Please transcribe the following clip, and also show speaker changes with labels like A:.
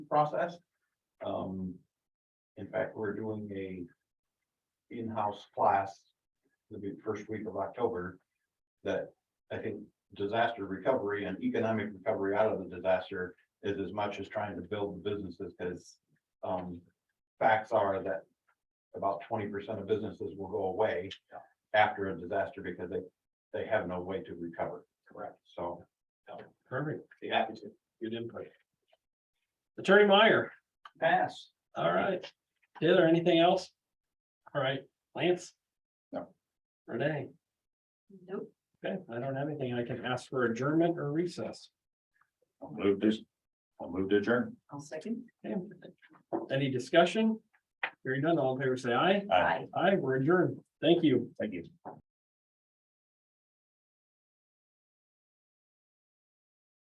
A: process. Um, in fact, we're doing a in-house class the big first week of October that I think disaster recovery and economic recovery out of the disaster is as much as trying to build the businesses because um, facts are that about twenty percent of businesses will go away after a disaster because they, they have no way to recover. Correct. So.
B: Perfect.
A: Be happy to.
B: Good input. Attorney Meyer,
A: Pass.
B: all right. Taylor, anything else? All right, Lance?
A: No.
B: Renee?
C: Nope.
B: Okay, I don't have anything. I can ask for adjournment or recess.
A: I'll move this, I'll move to adjourn.
C: I'll second.
B: Okay. Any discussion? Hearing none, all in favor, say aye.
A: Aye.
C: Bye.
B: Aye, we're adjourned. Thank you.
A: Thank you.